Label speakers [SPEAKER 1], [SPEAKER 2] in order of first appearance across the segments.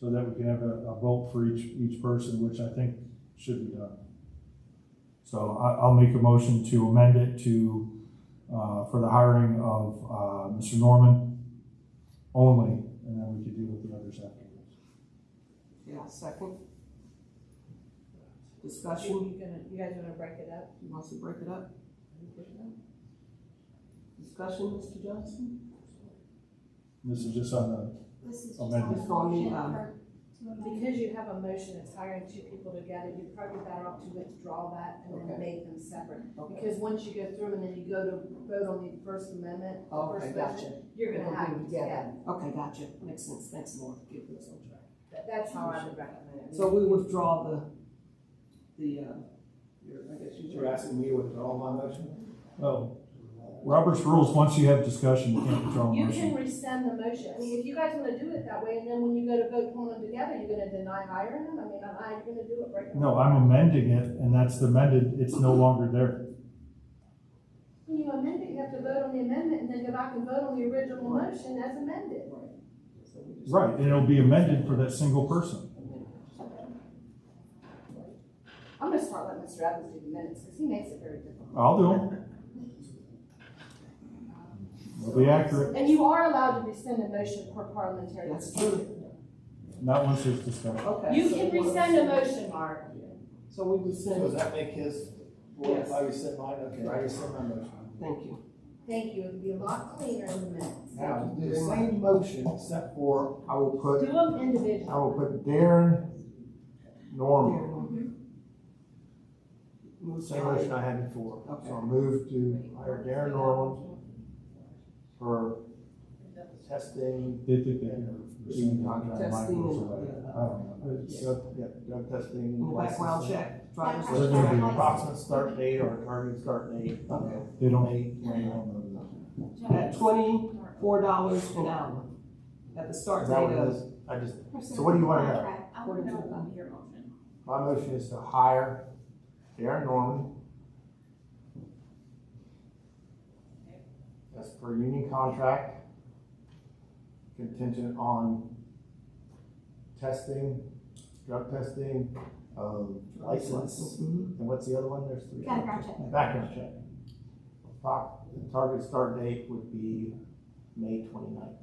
[SPEAKER 1] so that we can have a, a vote for each, each person, which I think should be done. So I, I'll make a motion to amend it to, uh, for the hiring of, uh, Mr. Norman only, and then we could deal with the others afterwards.
[SPEAKER 2] Yeah, second.
[SPEAKER 3] You
[SPEAKER 2] Discussion,
[SPEAKER 3] gonna, you guys gonna break it up?
[SPEAKER 2] he wants to break it up? Discussion, Mr. Johnson?
[SPEAKER 1] This is just on the,
[SPEAKER 4] This is just
[SPEAKER 1] Amendment.
[SPEAKER 4] on the
[SPEAKER 2] Um,
[SPEAKER 4] motion for- to amend.
[SPEAKER 3] Because you have a motion that's hiring two people together, you're probably better off to withdraw that and then make them separate.
[SPEAKER 2] Okay,
[SPEAKER 3] Because once you go through them and then you go to vote on the First Amendment, the
[SPEAKER 2] okay,
[SPEAKER 3] First Amendment,
[SPEAKER 2] gotcha.
[SPEAKER 3] you're
[SPEAKER 2] We'll
[SPEAKER 3] gonna
[SPEAKER 2] do
[SPEAKER 3] have
[SPEAKER 2] it
[SPEAKER 3] them together.
[SPEAKER 2] together. Okay, gotcha, makes sense, thanks, Laura, get this on track.
[SPEAKER 3] That- That's how I would recommend it.
[SPEAKER 2] So we withdraw the, the, uh, your- I guess you.
[SPEAKER 5] You're asking me to withdraw my motion?
[SPEAKER 1] oh, Robert's rules, once you have discussion, you can't withdraw a
[SPEAKER 3] You
[SPEAKER 1] motion.
[SPEAKER 3] can rescind the motion. I mean, if you guys wanna do it that way, and then when you go to vote on them together, you're gonna deny hiring them? I mean, I'm, I'm gonna do it right now.
[SPEAKER 1] No, I'm amending it, and that's the amended, it's no longer there.
[SPEAKER 3] When you amend it, you have to vote on the amendment and then go back and vote on the original motion as amended.
[SPEAKER 2] So we just-
[SPEAKER 1] Right, and it'll be amended for that single person.
[SPEAKER 3] I'm gonna start letting Mr. Evans do the minutes, because he makes it very difficult.
[SPEAKER 1] I'll do them. It'll be accurate,
[SPEAKER 3] And you are allowed to rescind a motion per parliamentary.
[SPEAKER 2] That's
[SPEAKER 3] procedure.
[SPEAKER 2] true,
[SPEAKER 1] not once there's discussion.
[SPEAKER 2] okay.
[SPEAKER 3] You
[SPEAKER 2] so
[SPEAKER 3] can
[SPEAKER 2] we wanna-
[SPEAKER 3] rescind a motion, Mark.
[SPEAKER 2] So we
[SPEAKER 5] So Does
[SPEAKER 2] rescind,
[SPEAKER 5] that make his, well, if I rescind mine, okay, I
[SPEAKER 2] Right.
[SPEAKER 5] rescind my motion.
[SPEAKER 2] thank you.
[SPEAKER 3] Thank you, it'll be a lot cleaner in the minutes.
[SPEAKER 5] Now, do the same motion except for I will
[SPEAKER 3] Do
[SPEAKER 5] put,
[SPEAKER 3] them individually.
[SPEAKER 5] I will put Darren
[SPEAKER 1] Oh.
[SPEAKER 5] Norman.
[SPEAKER 3] Mm-hmm.
[SPEAKER 2] Move
[SPEAKER 5] Same motion I had before.
[SPEAKER 2] Okay.
[SPEAKER 5] So I move to hire Darren Norman for testing
[SPEAKER 1] They think they can.
[SPEAKER 5] and receiving contract.
[SPEAKER 2] Testing
[SPEAKER 1] Michael's
[SPEAKER 2] and,
[SPEAKER 1] away.
[SPEAKER 2] uh,
[SPEAKER 1] I don't know.
[SPEAKER 5] Uh, Drug, yeah, drug testing.
[SPEAKER 2] And Background
[SPEAKER 5] licensing.
[SPEAKER 2] check, driver's
[SPEAKER 1] So they're gonna
[SPEAKER 2] license.
[SPEAKER 1] be-
[SPEAKER 5] Approximate start date or target start date.
[SPEAKER 2] Okay.
[SPEAKER 1] They don't,
[SPEAKER 5] May,
[SPEAKER 1] they don't know
[SPEAKER 2] At twenty-four dollars an hour, at the
[SPEAKER 5] that.
[SPEAKER 2] start
[SPEAKER 5] Is that what
[SPEAKER 2] date
[SPEAKER 5] it
[SPEAKER 2] of.
[SPEAKER 5] is? I just,
[SPEAKER 4] Pursuant
[SPEAKER 5] So what do you wanna
[SPEAKER 4] to
[SPEAKER 5] have?
[SPEAKER 4] contract. I want to know about your motion.
[SPEAKER 5] my motion is to hire Darren Norman. As per union contract. Contingent on testing, drug testing, um, license,
[SPEAKER 2] Mhm.
[SPEAKER 5] and what's the other one? There's three.
[SPEAKER 4] Background check.
[SPEAKER 5] Background check. Pro- Target start date would be May 29th.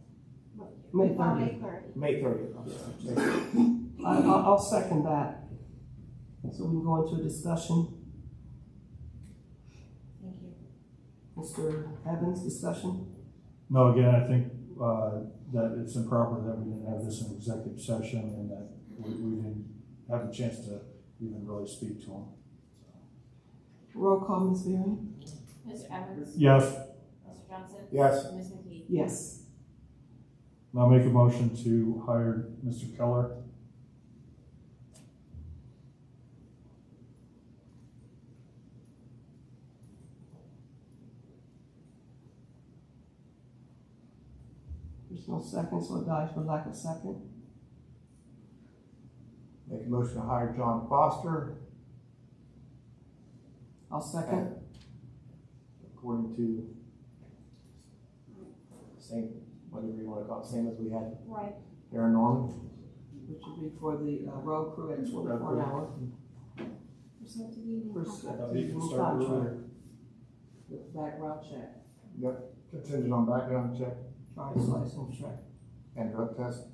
[SPEAKER 2] May
[SPEAKER 4] By
[SPEAKER 2] thirty.
[SPEAKER 4] May thirty.
[SPEAKER 5] May thirtieth, I'm sorry. May 30th.
[SPEAKER 2] I, I'll, I'll second that. So we can go into a discussion,
[SPEAKER 3] Thank you.
[SPEAKER 2] Mr. Evans, discussion?
[SPEAKER 1] No, again, I think, uh, that it's improper that we didn't have this in executive session and that we, we didn't have a chance to even really speak to them.
[SPEAKER 2] Roll call, Ms. Berry?
[SPEAKER 6] Mr. Evans?
[SPEAKER 1] Yes,
[SPEAKER 6] Mr. Johnson?
[SPEAKER 5] Yes,
[SPEAKER 6] Ms. McKee?
[SPEAKER 2] Yes.
[SPEAKER 1] I'll make a motion to hire Mr. Keller.
[SPEAKER 2] There's no second, so it dies for lack of second.
[SPEAKER 5] make a motion to hire John Foster
[SPEAKER 2] I'll second.
[SPEAKER 5] according to same, whatever you wanna call it, same as we had
[SPEAKER 4] Right.
[SPEAKER 5] Darren Norman.
[SPEAKER 2] Which would be for the uh, road crew at twenty-four an hour.
[SPEAKER 4] Pursuant to the union
[SPEAKER 2] First,
[SPEAKER 4] contract.
[SPEAKER 2] uh,
[SPEAKER 1] You can start
[SPEAKER 2] contract
[SPEAKER 1] earlier.
[SPEAKER 2] with Background check,
[SPEAKER 5] Contingent on background check
[SPEAKER 2] driver's license check.
[SPEAKER 5] and drug test.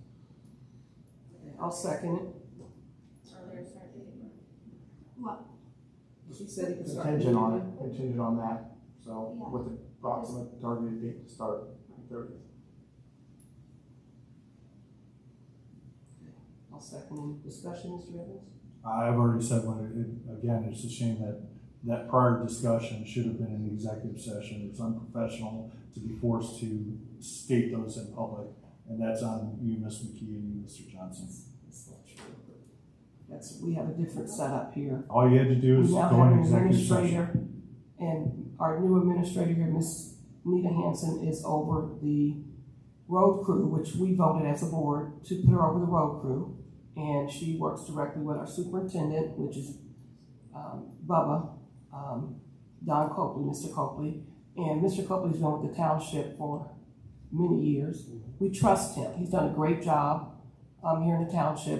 [SPEAKER 2] I'll second it.
[SPEAKER 6] Earlier start date.
[SPEAKER 2] He said he could start.
[SPEAKER 5] Contingent on it, contingent on that, so
[SPEAKER 4] Yeah.
[SPEAKER 5] with the approximate targeted date to start, thirtieth.
[SPEAKER 2] I'll second it. Discussion, Mr. Evans?
[SPEAKER 1] I've already said one, it, again, it's a shame that that prior discussion should have been in the executive session. It's unprofessional to be forced to state those in public, and that's on you, Ms. McKee, and you, Mr. Johnson.
[SPEAKER 2] That's not true. That's, we have a different setup here.
[SPEAKER 1] All you had to do is
[SPEAKER 2] We now
[SPEAKER 1] go
[SPEAKER 2] have
[SPEAKER 1] in
[SPEAKER 2] an
[SPEAKER 1] executive session.
[SPEAKER 2] administrator, and our new administrator here, Miss Nita Hanson, is over the road crew, which we voted as a board to put her over the road crew. And she works directly with our superintendent, which is, um, Bubba, um, Don Copley, Mr. Copley. And Mr. Copley's been with the township for many years. We trust him. He's done a great job. um, here in the township